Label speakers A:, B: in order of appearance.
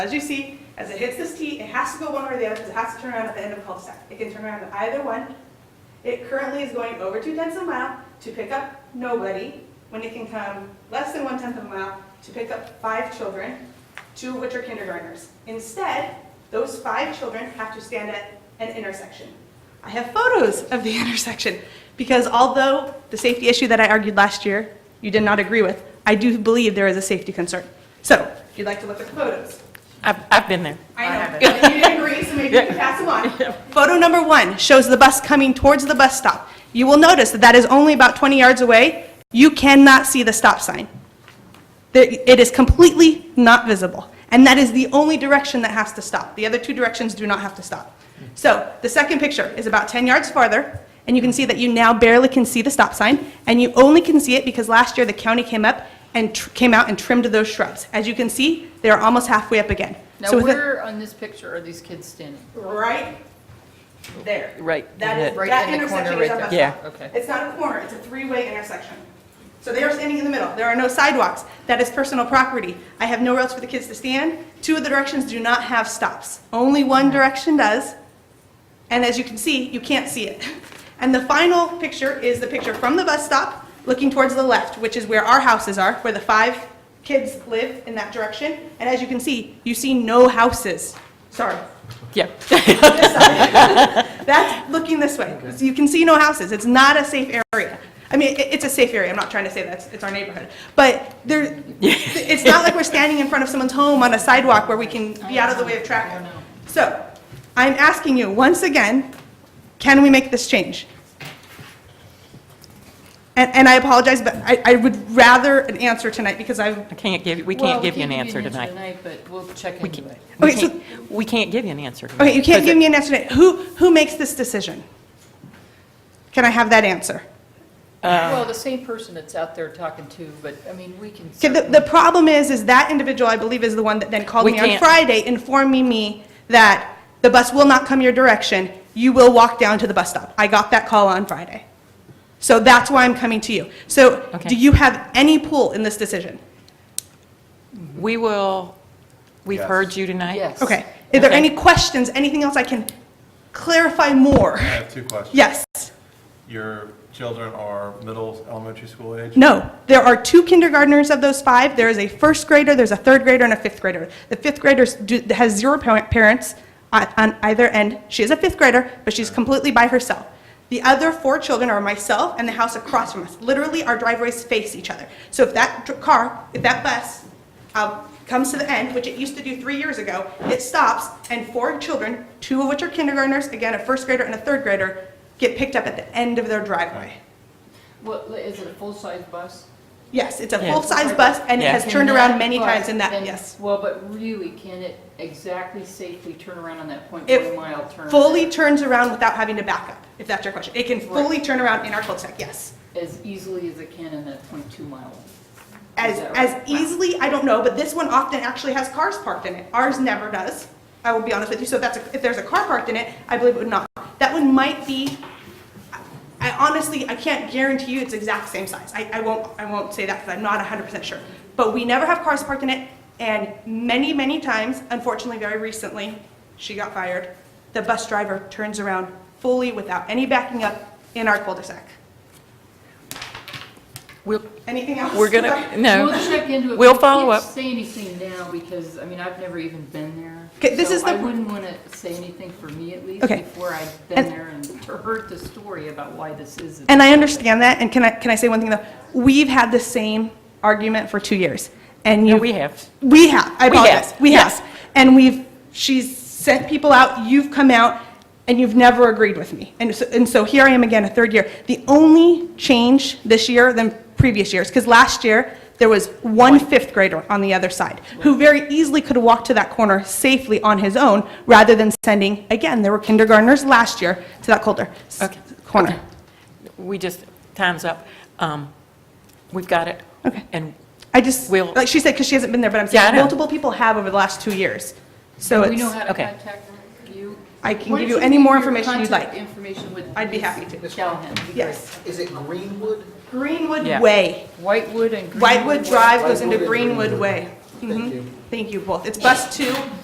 A: As you see, as it hits this T, it has to go one way or the other because it has to turn around at the end of a cul-de-sac. It can turn around at either one. It currently is going over two tenths of a mile to pick up nobody when it can come less than one tenth of a mile to pick up five children, two of which are kindergartners. Instead, those five children have to stand at an intersection. I have photos of the intersection because although the safety issue that I argued last year you did not agree with, I do believe there is a safety concern. So, if you'd like to look at the photos.
B: I've, I've been there.
A: I know,
B: it.
A: and you didn't agree, so maybe you can pass them on. Photo number one shows the bus coming towards the bus stop. You will notice that that is only about 20 yards away. You cannot see the stop sign. There- It is completely not visible, and that is the only direction that has to stop. The other two directions do not have to stop. So the second picture is about 10 yards farther, and you can see that you now barely can see the stop sign, and you only can see it because last year the county came up and tr- came out and trimmed those shrubs. As you can see, they are almost halfway up again.
C: Now,
A: So with it-
C: where on this picture are these kids standing?
A: right there.
B: Right,
A: That
B: in
A: is,
B: it.
C: Right
A: that
C: in the corner
A: intersection
C: right
A: is up.
C: there.
B: Yeah.
C: Okay.
A: It's not a corner, it's a three-way intersection. So they are standing in the middle. There are no sidewalks. That is personal property. I have nowhere else for the kids to stand. Two of the directions do not have stops. Only one
B: Mm-hmm.
A: direction does. And as you can see, you can't see it. And the final picture is the picture from the bus stop, looking towards the left, which is where our houses are, where the five kids live in that direction. And as you can see, you see no houses. Sorry,
B: Yeah.
A: this side. That's looking this way. So you can see no houses. It's not a safe area. I mean, it, it's a safe area. I'm not trying to say that's, it's our neighborhood. But there, it's not like we're standing in front of someone's home on a sidewalk where we can be out of the way of traffic. So I'm asking you, once again, can we make this change? And, and I apologize, but I, I would rather an answer tonight because I've,
B: I can't give, you. we
C: Well,
B: can't give you an answer tonight.
C: But we'll check
B: We
C: into
B: can't,
C: it.
B: we
A: Okay, so-
B: can't, we can't give you an answer. tonight.
A: okay, you can't
B: But
A: give me an answer tonight. Who, who makes this decision? Can I have that answer? Uh,
C: Well, the same person that's out there talking to, but, I mean, we can.
A: Okay, the, the problem is, is that individual, I believe, is the one that then called
B: We
A: me on
B: can't-
A: Friday, informing me that the bus will not come your direction, you will walk down to the bus stop. I got that call on Friday. So that's why I'm coming to you. So,
B: Okay.
A: do you have any pull in this decision?
B: We will, we've
D: Yes.
B: heard you tonight.
C: Yes.
A: Okay. Are there
B: Okay.
A: any questions, anything else I can clarify more?
D: I have two questions.
A: Yes,
D: Your children are middle, elementary school age?
A: no. There are two kindergartners of those five. There is a first grader, there's a third grader, and a fifth grader. The fifth grader s- do- has zero par- parents on on either end. She is a fifth grader, but she's completely by herself. The other four children are myself and the house across from us. Literally, our driveways face each other. So if that dr- car, if that bus um, comes to the end, which it used to do three years ago, it stops, and four children, two of which are kindergartners, again, a first grader and a third grader, get picked up at the end of their driveway.
C: What, is it a full-size bus?
A: Yes, it's a
B: Yeah.
A: full-size bus, and it
B: Yeah.
A: has
C: Can
A: turned around
C: that
A: many
C: bus
A: times in that,
C: then-
A: yes.
C: Well, but really, can it exactly safely turn around on that point
A: It
C: one mile turn?
A: Fully turns around without having to back up, if that's your question. It can fully turn around in our cul-de-sac, yes.
C: As easily as it can in that point two mile?
A: As,
C: that
A: as
C: right? Wow.
A: easily, I don't know, but this one often actually has cars parked in it. Ours never does, I will be honest with you. So if that's, a- if there's a car parked in it, I believe it would not. That one might be, I honestly, I can't guarantee you it's exact same size. I, I won't, I won't say that because I'm not hundred percent sure. But we never have cars parked in it, and many, many times, unfortunately, very recently, she got fired. The bus driver turns around fully without any backing up in our cul-de-sac.
B: We'll,
A: Anything else?
B: we're gonna,
C: We'll
B: no,
C: check into it.
B: We'll
C: We
B: follow up.
C: can't Say anything now because, I mean, I've never even been there.
A: 'Kay, this
C: so
A: is the-
C: I wouldn't want to say anything for me at least
A: Okay.
C: before I've
A: And-
C: been there and heard the story about why this is.
A: And I understand that, and can I, can I say one thing though? We've had the same argument for two years, and you.
B: no, we have.
A: We have, I
B: We have,
A: apologize. We
B: yes.
A: have. And we've, she's sent people out, you've come out, and you've never agreed with me. And so, and so here I am again, a third year. The only change this year than previous years, because last year, there was one fifth grader on the other side, who very easily could have walked to that corner safely on his own, rather than sending, again, there were kindergartners last year to that colder s-
B: Okay.
A: corner.
B: We just, time's up. Um, We've got it.
A: Okay.
B: And,
A: I just,
B: We'll-
A: like she said, because she hasn't been there, but I'm
B: Yeah, I
A: saying
B: know.
A: multiple people have over the last two years. So
C: Do
A: it's.
C: we know how to
B: okay.
C: contact you?
A: I can
C: Why
A: give
C: don't
A: you any more
C: give your
A: information you'd
C: contact
A: like.
C: Information with.
A: I'd be
C: Ms.
A: happy to.
C: Callahan. It'd be
A: Yes.
E: Is it Greenwood?
A: Greenwood
B: Yeah.
A: Way.
C: great. Whitewood and.
A: Whitewood
C: Greenwood.
A: Drive goes into
E: Whitewood and
A: Greenwood
E: Greenwood.
A: Way.
E: Thank you.
A: Thank you both. It's bus two,